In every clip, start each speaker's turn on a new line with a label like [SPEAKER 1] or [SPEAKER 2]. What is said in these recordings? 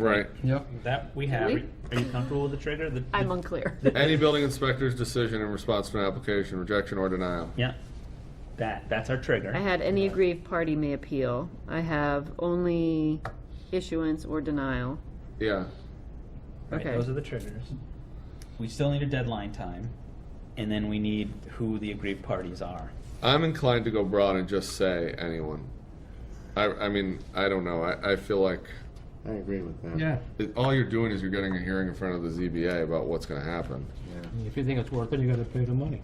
[SPEAKER 1] Right.
[SPEAKER 2] Yep.
[SPEAKER 3] That we have.
[SPEAKER 4] we?
[SPEAKER 3] Are you- are you comfortable with the trigger? The-
[SPEAKER 4] I'm unclear.
[SPEAKER 1] Any building inspector's decision in response to an application, rejection or denial.
[SPEAKER 3] Yeah. That, that's our
[SPEAKER 4] I
[SPEAKER 3] trigger.
[SPEAKER 4] had any aggrieved party may appeal. I have only issuance or denial.
[SPEAKER 1] Yeah.
[SPEAKER 3] Right,
[SPEAKER 4] okay.
[SPEAKER 3] Those are the triggers. We still need a deadline time, and then we need who the aggrieved parties are.
[SPEAKER 1] I'm inclined to go broad and just say anyone. I, I mean, I don't know. I, I feel like
[SPEAKER 5] I agree with that.
[SPEAKER 2] Yeah.
[SPEAKER 1] it, all you're doing is you're getting a hearing in front of the ZBA about what's going to happen.
[SPEAKER 2] If you think it's worth it, you gotta pay the money.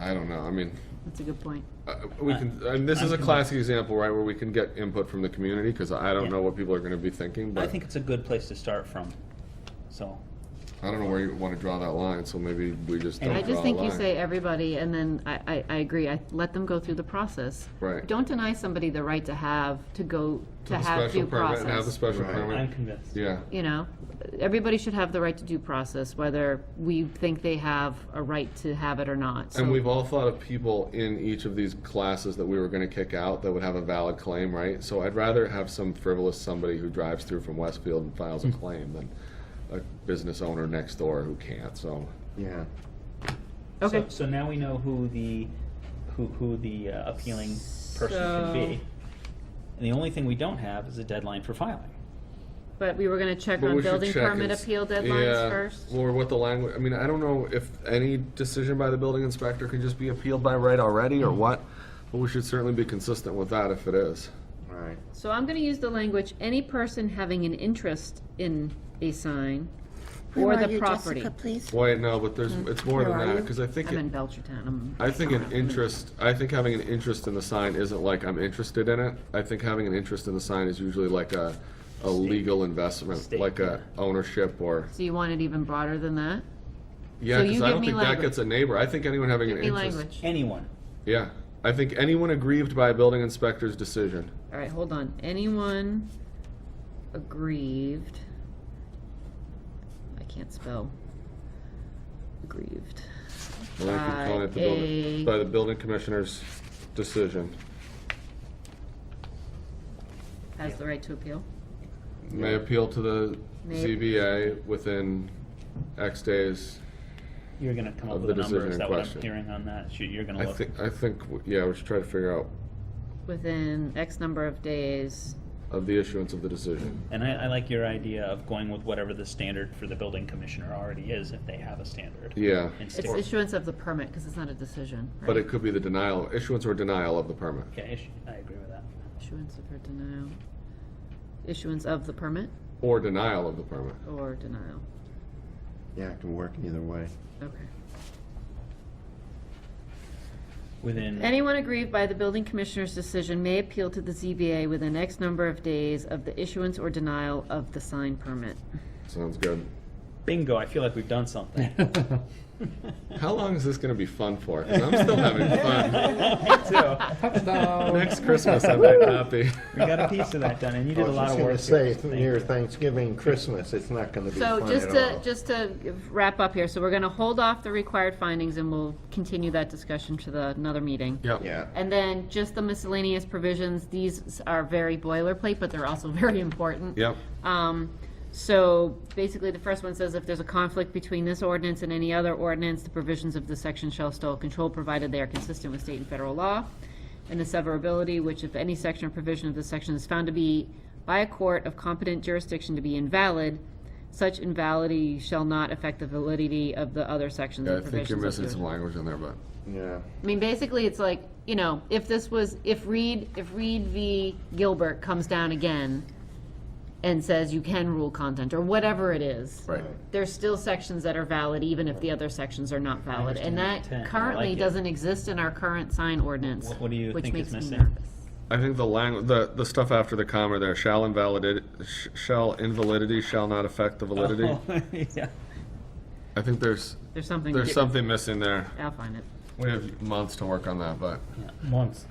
[SPEAKER 1] I don't know. I mean,
[SPEAKER 4] That's a good point.
[SPEAKER 1] uh, we can. And this is a classic example, right, where we can get input from the community because I don't know what people are going to be thinking,
[SPEAKER 3] I
[SPEAKER 1] but
[SPEAKER 3] think it's a good place to start from, so.
[SPEAKER 1] I don't know where you want to draw that line. So maybe we just don't
[SPEAKER 4] I
[SPEAKER 1] draw
[SPEAKER 4] just
[SPEAKER 1] a
[SPEAKER 4] think you
[SPEAKER 1] line.
[SPEAKER 4] say everybody, and then I, I, I agree, I let them go through the process.
[SPEAKER 1] Right.
[SPEAKER 4] Don't deny somebody the right to have, to go, to
[SPEAKER 1] The
[SPEAKER 4] have
[SPEAKER 1] special
[SPEAKER 4] due
[SPEAKER 1] permit and Have the
[SPEAKER 4] process.
[SPEAKER 1] special
[SPEAKER 5] Right.
[SPEAKER 1] permit.
[SPEAKER 3] I'm convinced.
[SPEAKER 1] Yeah.
[SPEAKER 4] You know, everybody should have the right to due process, whether we think they have a right to have it or not.
[SPEAKER 1] And
[SPEAKER 4] So-
[SPEAKER 1] we've all thought of people in each of these classes that we were going to kick out that would have a valid claim, right? So I'd rather have some frivolous somebody who drives through from Westfield and files
[SPEAKER 4] Mm-hmm.
[SPEAKER 1] a claim than a business owner next door who can't. So
[SPEAKER 5] Yeah.
[SPEAKER 4] Okay.
[SPEAKER 3] So- So now we know who the, who, who the uh, appealing person can be.
[SPEAKER 4] So-
[SPEAKER 3] And the only thing we don't have is a deadline for filing.
[SPEAKER 4] But we were gonna check
[SPEAKER 1] But
[SPEAKER 4] on
[SPEAKER 1] we should
[SPEAKER 4] building
[SPEAKER 1] check
[SPEAKER 4] permit
[SPEAKER 1] and s-
[SPEAKER 4] appeal deadlines
[SPEAKER 1] yeah,
[SPEAKER 4] first.
[SPEAKER 1] Or what the language, I mean, I don't know if any decision by the building inspector can just be appealed by right already
[SPEAKER 4] Mm-hmm.
[SPEAKER 1] or what, but we should certainly be consistent with that if it is.
[SPEAKER 5] All right.
[SPEAKER 4] So I'm gonna use the language, any person having an interest in a sign or the property.
[SPEAKER 6] Jessica, please?
[SPEAKER 1] Wait, no, but
[SPEAKER 4] Mm-hmm.
[SPEAKER 1] there's, it's more than
[SPEAKER 6] Where are
[SPEAKER 1] that,
[SPEAKER 6] you?
[SPEAKER 1] because I think
[SPEAKER 4] I'm in
[SPEAKER 1] it,
[SPEAKER 4] Belchertown, I'm.
[SPEAKER 1] I think an interest, I think having an interest in the sign isn't like I'm interested in it. I think having an interest in the sign is usually like a, a legal investment,
[SPEAKER 3] Stake,
[SPEAKER 1] like a ownership or,
[SPEAKER 4] So you want it even broader than that?
[SPEAKER 1] yeah,
[SPEAKER 4] So
[SPEAKER 1] because
[SPEAKER 4] you
[SPEAKER 1] I
[SPEAKER 4] give
[SPEAKER 1] don't
[SPEAKER 4] me
[SPEAKER 1] think that
[SPEAKER 4] language.
[SPEAKER 1] gets a neighbor. I think anyone having an
[SPEAKER 4] Give me
[SPEAKER 1] interest.
[SPEAKER 4] language.
[SPEAKER 3] Anyone.
[SPEAKER 1] Yeah, I think anyone aggrieved by a building inspector's decision.
[SPEAKER 4] All right, hold on. Anyone aggrieved? I can't spell. Aggrieved.
[SPEAKER 1] Well, you can
[SPEAKER 4] By
[SPEAKER 1] call it the building-
[SPEAKER 4] a-
[SPEAKER 1] By the building commissioner's decision.
[SPEAKER 4] Has the right to appeal?
[SPEAKER 1] May appeal to the
[SPEAKER 4] May-
[SPEAKER 1] ZBA within X days.
[SPEAKER 3] You're gonna come up
[SPEAKER 1] Of
[SPEAKER 3] with
[SPEAKER 1] the
[SPEAKER 3] a number,
[SPEAKER 1] decision in
[SPEAKER 3] is that what
[SPEAKER 1] question.
[SPEAKER 3] I'm hearing on that? You- You're gonna
[SPEAKER 1] I
[SPEAKER 3] look.
[SPEAKER 1] think, I think, yeah, we should try to figure out
[SPEAKER 4] Within X number of days.
[SPEAKER 1] of the issuance of the decision.
[SPEAKER 3] And I, I like your idea of going with whatever the standard for the building commissioner already is, if they have a standard.
[SPEAKER 1] Yeah.
[SPEAKER 3] And
[SPEAKER 4] It's
[SPEAKER 3] stick-
[SPEAKER 4] issuance of the permit, because it's not a decision, right?
[SPEAKER 1] But it could be the denial, issuance or denial of the permit.
[SPEAKER 3] Yeah, ish- I agree with that.
[SPEAKER 4] Issuance of or denial. Issuance of the permit
[SPEAKER 1] Or denial of the permit.
[SPEAKER 4] or denial?
[SPEAKER 5] Yeah, it can work either way.
[SPEAKER 4] Okay.
[SPEAKER 3] Within,
[SPEAKER 4] Anyone aggrieved by the building commissioner's decision may appeal to the ZBA within X number of days of the issuance or denial of the sign permit.
[SPEAKER 1] Sounds good.
[SPEAKER 3] bingo, I feel like we've done something.
[SPEAKER 1] How long is this gonna be fun for? Because I'm still having fun. Next Christmas, I might not be.
[SPEAKER 3] We got a piece of that done, and you did a lot of
[SPEAKER 5] I
[SPEAKER 3] work.
[SPEAKER 5] was just
[SPEAKER 3] here, so
[SPEAKER 5] gonna say,
[SPEAKER 3] thank
[SPEAKER 5] near
[SPEAKER 3] you.
[SPEAKER 5] Thanksgiving, Christmas, it's not gonna be
[SPEAKER 4] So
[SPEAKER 5] fun
[SPEAKER 4] just
[SPEAKER 5] at
[SPEAKER 4] to,
[SPEAKER 5] all.
[SPEAKER 4] just to wrap up here, so we're gonna hold off the required findings and we'll continue that discussion to the, another meeting.
[SPEAKER 1] Yep.
[SPEAKER 5] Yeah.
[SPEAKER 4] And then just the miscellaneous provisions, these are very boilerplate, but they're also very important.
[SPEAKER 1] Yep.
[SPEAKER 4] Um, so basically, the first one says if there's a conflict between this ordinance and any other ordinance, the provisions of this section shall still control, provided they are consistent with state and federal law. And the severability, which if any section or provision of this section is found to be by a court of competent jurisdiction to be invalid, such invalidity shall not affect the validity of the other sections
[SPEAKER 1] Yeah, I
[SPEAKER 4] and
[SPEAKER 1] think
[SPEAKER 4] provisions.
[SPEAKER 1] you're
[SPEAKER 4] of
[SPEAKER 1] missing
[SPEAKER 4] the-
[SPEAKER 1] some language in there, but
[SPEAKER 5] Yeah.
[SPEAKER 4] I mean, basically, it's like, you know, if this was, if Reed, if Reed v. Gilbert comes down again and says you can rule content, or whatever it is.
[SPEAKER 1] Right.
[SPEAKER 4] There's still sections that are valid, even if the other sections are not valid, and
[SPEAKER 3] I
[SPEAKER 4] that
[SPEAKER 3] understand your intent. I
[SPEAKER 4] currently
[SPEAKER 3] like it.
[SPEAKER 4] doesn't exist in our current sign ordinance.
[SPEAKER 3] What- what do you
[SPEAKER 4] which
[SPEAKER 3] think is
[SPEAKER 4] makes me
[SPEAKER 3] missing?
[SPEAKER 4] nervous.
[SPEAKER 1] I think the language, the, the stuff after the comma there, shall invalidate, sh- shall invalidity shall not affect the validity.
[SPEAKER 3] Oh, Yeah.
[SPEAKER 1] I think there's,
[SPEAKER 4] There's something,
[SPEAKER 1] there's something missing there.
[SPEAKER 4] I'll find it.
[SPEAKER 1] We have months to work on that, but
[SPEAKER 3] Months.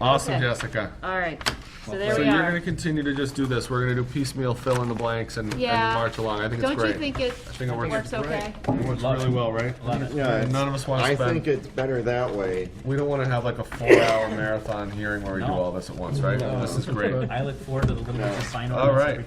[SPEAKER 1] Awesome,
[SPEAKER 4] Okay.
[SPEAKER 1] Jessica.
[SPEAKER 4] All right, so there
[SPEAKER 1] So
[SPEAKER 4] we
[SPEAKER 1] you're gonna
[SPEAKER 4] are.
[SPEAKER 1] continue to just do this. We're gonna do piecemeal, fill in the blanks and, and
[SPEAKER 4] Yeah.
[SPEAKER 1] march along. I think it's
[SPEAKER 4] Don't
[SPEAKER 1] great.
[SPEAKER 4] you think it
[SPEAKER 1] think it works
[SPEAKER 4] works okay?
[SPEAKER 1] It works
[SPEAKER 3] Love
[SPEAKER 1] really
[SPEAKER 3] it.
[SPEAKER 1] well, right?
[SPEAKER 3] Love it.
[SPEAKER 5] Yeah, it's-
[SPEAKER 1] None of us wanna
[SPEAKER 5] I
[SPEAKER 1] spend-
[SPEAKER 5] think it's better that way.
[SPEAKER 1] We don't wanna have like a four-hour marathon hearing where we do
[SPEAKER 3] No.
[SPEAKER 1] all this at once, right? This is great.
[SPEAKER 3] I look forward to the little bit of sign
[SPEAKER 1] All
[SPEAKER 3] ordinance
[SPEAKER 1] right.
[SPEAKER 3] every